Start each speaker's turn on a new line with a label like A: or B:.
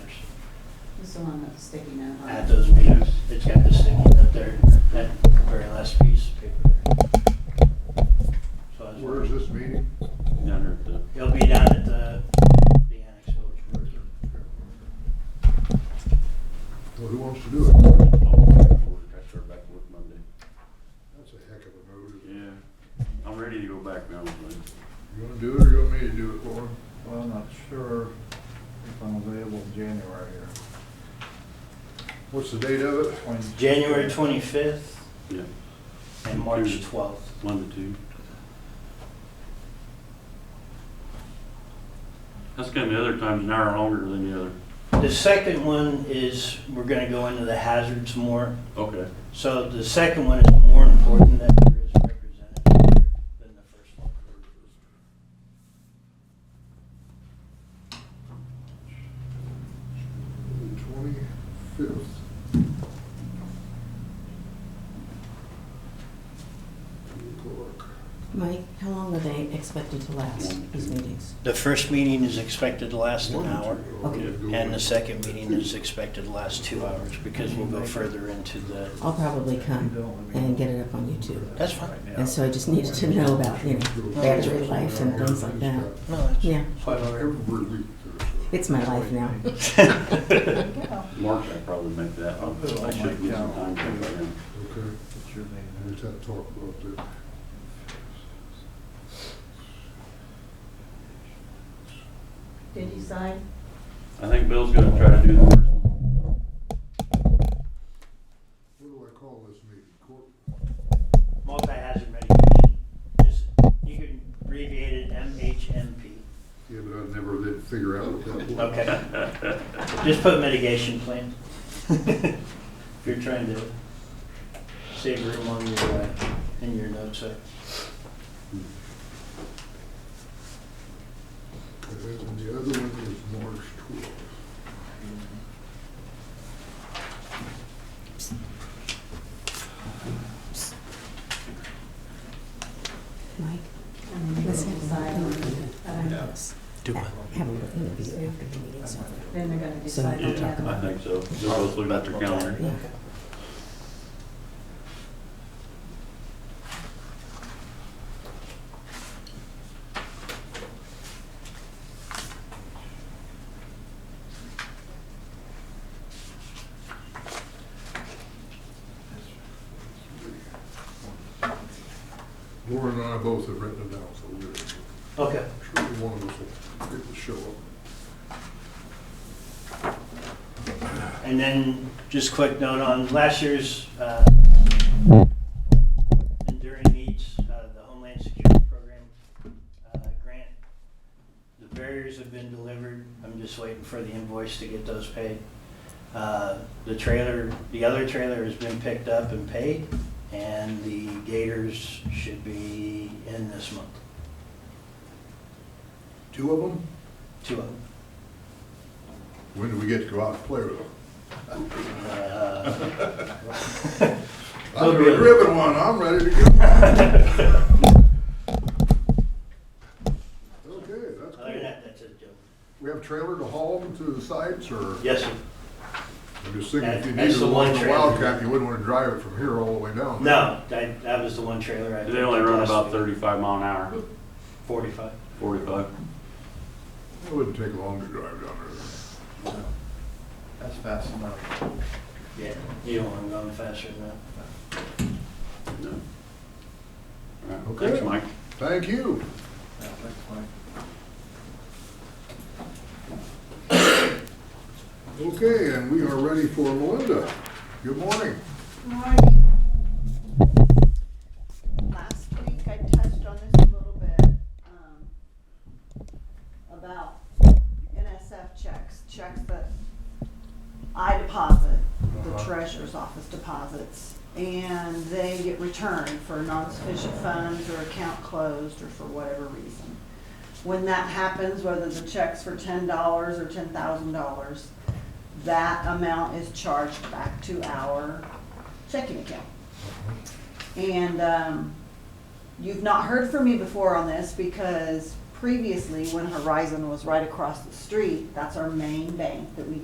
A: This the one that's sticking out. huh?
B: At those meetings, it's got this thing up there, that very last piece of paper there. So I was
C: Where is
B: wondering-
C: this meeting?
D: down there at the,
B: It'll be down at the, the annex village. board.
C: Well, who wants to do it?
D: oh, I started back to work Monday.
C: That's a heck of a move.
D: Yeah, I'm ready to go back now, but
C: You wanna do it or you want me to do it for him?
E: Well, I'm not sure if I'm available in January or
C: What's the date of it?
E: twenty.
B: January twenty-fifth
D: yeah,
B: and March twelfth.
D: one to two. That's kind of the other time's an hour longer than the other.
B: The second one is, we're gonna go into the hazards more.
D: Okay.
B: So the second one is more important that there is representative here than the first one.
C: Twenty-fifth.
F: Mike, how long are they expected to last, these meetings?
B: The first meeting is expected to last an hour, and the second meeting is expected to last two hours, because we'll go further into the,
F: I'll probably come and get it up on YouTube.
B: that's fine.
F: And so I just needed to know about, you know, battery life and things like that.
B: No, that's
F: Yeah,
B: quite all right.
C: Every week.
F: it's my life now.
D: March, I probably make that, I'll- I should get some time to go in.
C: Okay, we just had to talk about that.
A: Did he sign?
D: I think Bill's gonna try to do the first one.
C: What do I call this meeting? Court?
B: Multi-hazard mitigation, just, you can abbreviate it MHMP.
C: Yeah, but I never did figure out what that was.
B: Okay. Just put mitigation plan. If you're trying to save room on your, uh, in your notes there.
C: And the other one is March twelfth.
F: Mike,
A: And then
F: Let's
A: they
F: have a
A: decide on
F: look.
A: it. Uh,
B: Do what?
F: have a little interview after the meeting's over.
A: Then they're gonna decide on the
D: Yeah,
A: other
D: I
A: one.
D: think so. They're both looking at their calendar.
F: Yeah.
C: Warren and I both have written it down, so we're sure
B: Okay.
C: one of us will get to show up.
B: And then, just quick note on last year's uh, Enduring Needs, uh, the Homeland Security Program uh, grant. The barriers have been delivered. I'm just waiting for the invoice to get those paid. Uh, The trailer, the other trailer has been picked up and paid, and the gators should be in this month,
C: Two of them?
B: two of them.
C: When do we get to go out and play with them?
B: Uh,
C: I'm
B: They'll be-
C: a ribbon one, I'm ready to go. Okay, that's
B: Other than
C: cool.
B: that, that's it, Joe.
C: We have a trailer to haul them to the sites, or?
B: Yes, sir.
C: I'm just thinking, if you
B: That's
C: needed
B: the
C: one
B: one
C: in the
B: trailer.
C: Wildcat, you wouldn't want to drive it from here all the way down.
B: No, that, that was the one trailer I.
D: They only run
B: last
D: about
B: week.
D: thirty-five mile an hour,
B: Forty-five.
D: forty-five.
C: It wouldn't take long to drive down there.
E: That's fast enough.
B: Yeah, you don't want them going faster than that.
D: No. All right,
C: Okay.
D: Thanks, Mike.
C: Thank you.
E: Yeah, that's fine.
C: Okay, and we are ready for Melinda. Good morning.
G: Morning. Last week, I touched on this a little bit, um, about NSF checks, checks that I deposit, the
C: Uh-huh.
G: treasurer's office deposits, and they get returned for non-sufficient funds or account closed or for whatever reason. When that happens, whether the check's for ten dollars or ten thousand dollars, that amount is charged back to our checking account. And um, you've not heard from me before on this because previously, when Horizon was right across the street, that's our main bank that we